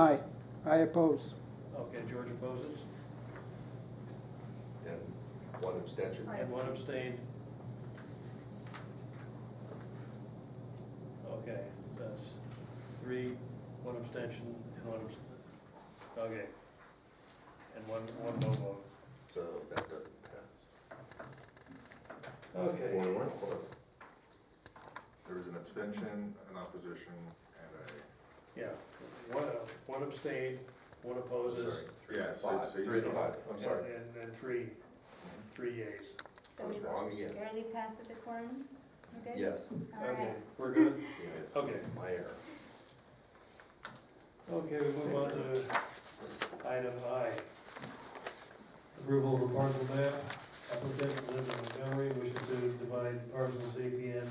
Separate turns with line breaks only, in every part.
Aye. I oppose.
Okay, George opposes,
And one abstention?
I
and one abstained. Okay, that's three, one abstention, and one abst, okay. And one, one no vote.
So that doesn't pass.
Okay,
One, one, one.
There was an abstention, an opposition, and a,
yeah, one, one abstained, one opposes,
Sorry, Three to
Yeah, so-
five.
so you
Three to
still-
five, I'm
and,
sorry.
and three, three yeas.
So
I was
we
wrong again.
barely passed with the quorum? We're good?
Yes.
All
Okay,
right.
we're good,
yes,
okay.
My error.
Okay, we move on to item I. Approval of the parcel map, applicant Linda Montgomery wishes to divide parcels APN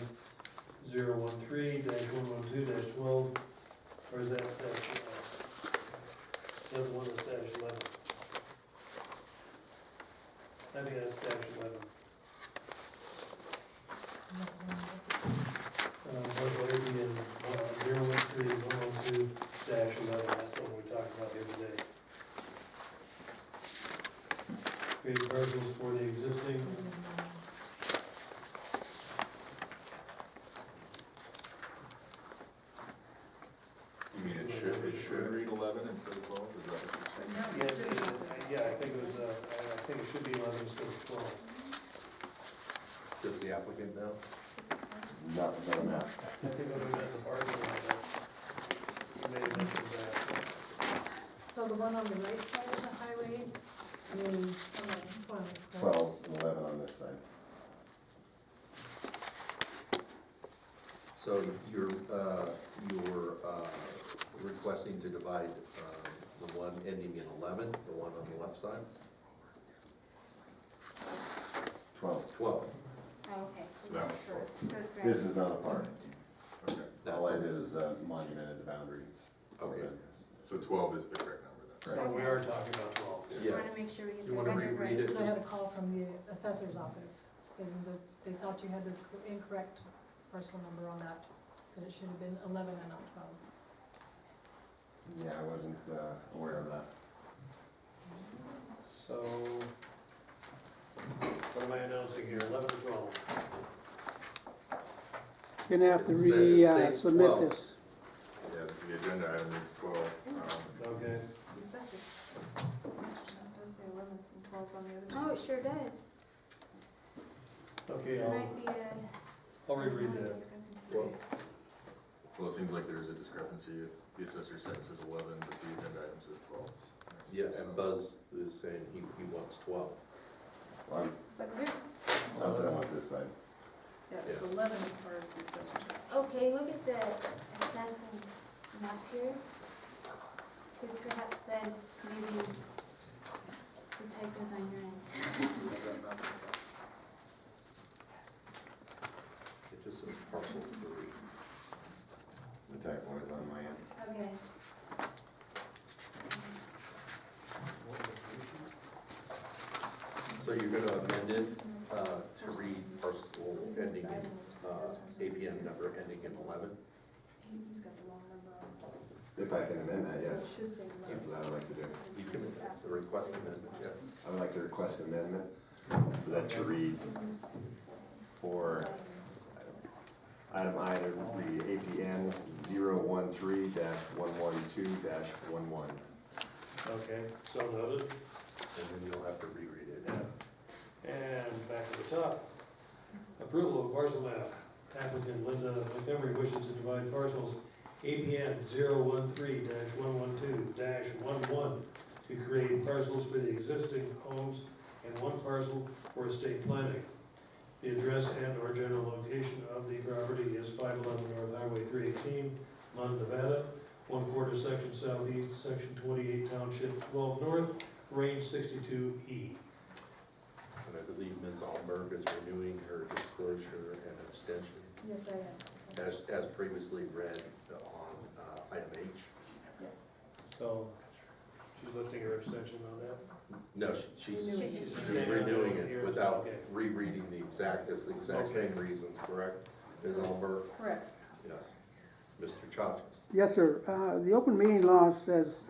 013 one one two twelve, or is that, that's, uh, that's one that's dash eleven? I think that's dash eleven. Um, parcel APN uh, zero one three one one two dash eleven, that's the one we talked about the other day. Create parcels for the existing.
you mean it should, it should read eleven instead of twelve, is that what you're saying?
Yeah, yeah, I think it was, uh, I I think it should be eleven instead of twelve.
Does the applicant know?
Not, not now.
I think other than the parking lot, that may have mentioned that.
So the one on the right side of the highway is twelve, right?
Twelve and eleven on this side.
So you're, uh, you're uh, requesting to divide uh, the one ending in 11, the one on the left side?
Twelve.
12.
Oh, okay.
So that was four.
So it's right.
This is not a park.
Okay,
That's
All I
it.
did is uh, monumented the boundaries.
Okay.
so twelve is the correct number then.
So we are talking about twelve.
Just
Yeah.
want to make sure we get
You
the
wanna
record right.
reread it?
So I had a call from the assessor's office stating that they thought you had the incorrect parcel number on that, that it should have been eleven and not twelve.
Yeah, I wasn't uh, aware of that.
So, what am I announcing here, eleven or twelve?
You're gonna have to
It says- it
re, uh,
states
submit
twelve.
this.
Yeah, the agenda item reads twelve, um,
Okay,
Assessor's- assessor's note does say 11 and 12's on the other side. Oh, it sure does.
okay,
There
I'll,
might be a.
I'll reread that.
Well,
well, it seems like there is a discrepancy, if the assessor says it's eleven, but the agenda item says twelve.
Yeah, and Buzz is saying he he wants 12.
Well, I'm,
But here's,
I'm set on this side.
Yeah, it's
Yeah.
eleven as far as the accessory.
okay, look at the assessor's map here. Because perhaps that's maybe the typos on your end.
It just says parcel three.
The typo is on my end.
Okay.
So you're going to amend it uh, to read parcel
This next
ending, in,
item is
uh,
for this one.
APN number ending in 11?
He- He's got the wrong number on.
If I can amend that,
So it
yes,
should say
that's
eleven.
what I would like to do.
You can the request amendment, yes.
I would like to request amendment
So-
for that to read for item I to read APN 013-112-11.
Okay, so noted.
And then you'll have to reread it.
And back to the top. Approval of parcel map. Applicant Linda Montgomery wishes to divide parcels APN 013-112-11 to create parcels for the existing homes and one parcel for estate planning. The address and/or general location of the property is 511 North Highway 318, Lund, Nevada, one quarter section southeast, section 28, township 12 north, range E. 62E.
And I believe Ms. Alberg is renewing her disclosure and abstention
Yes, I am,
as, as previously read on uh, item H.
yes.
So, she's lifting her abstention on that?
No, she- she's
Renewing.
she's just renewing it without
Okay.
rereading the exact, it's the exact same reasons, correct? Ms. Alberg?
Correct.
Yes. Mr. Chachas?
Yes, sir. Uh, The open meeting law says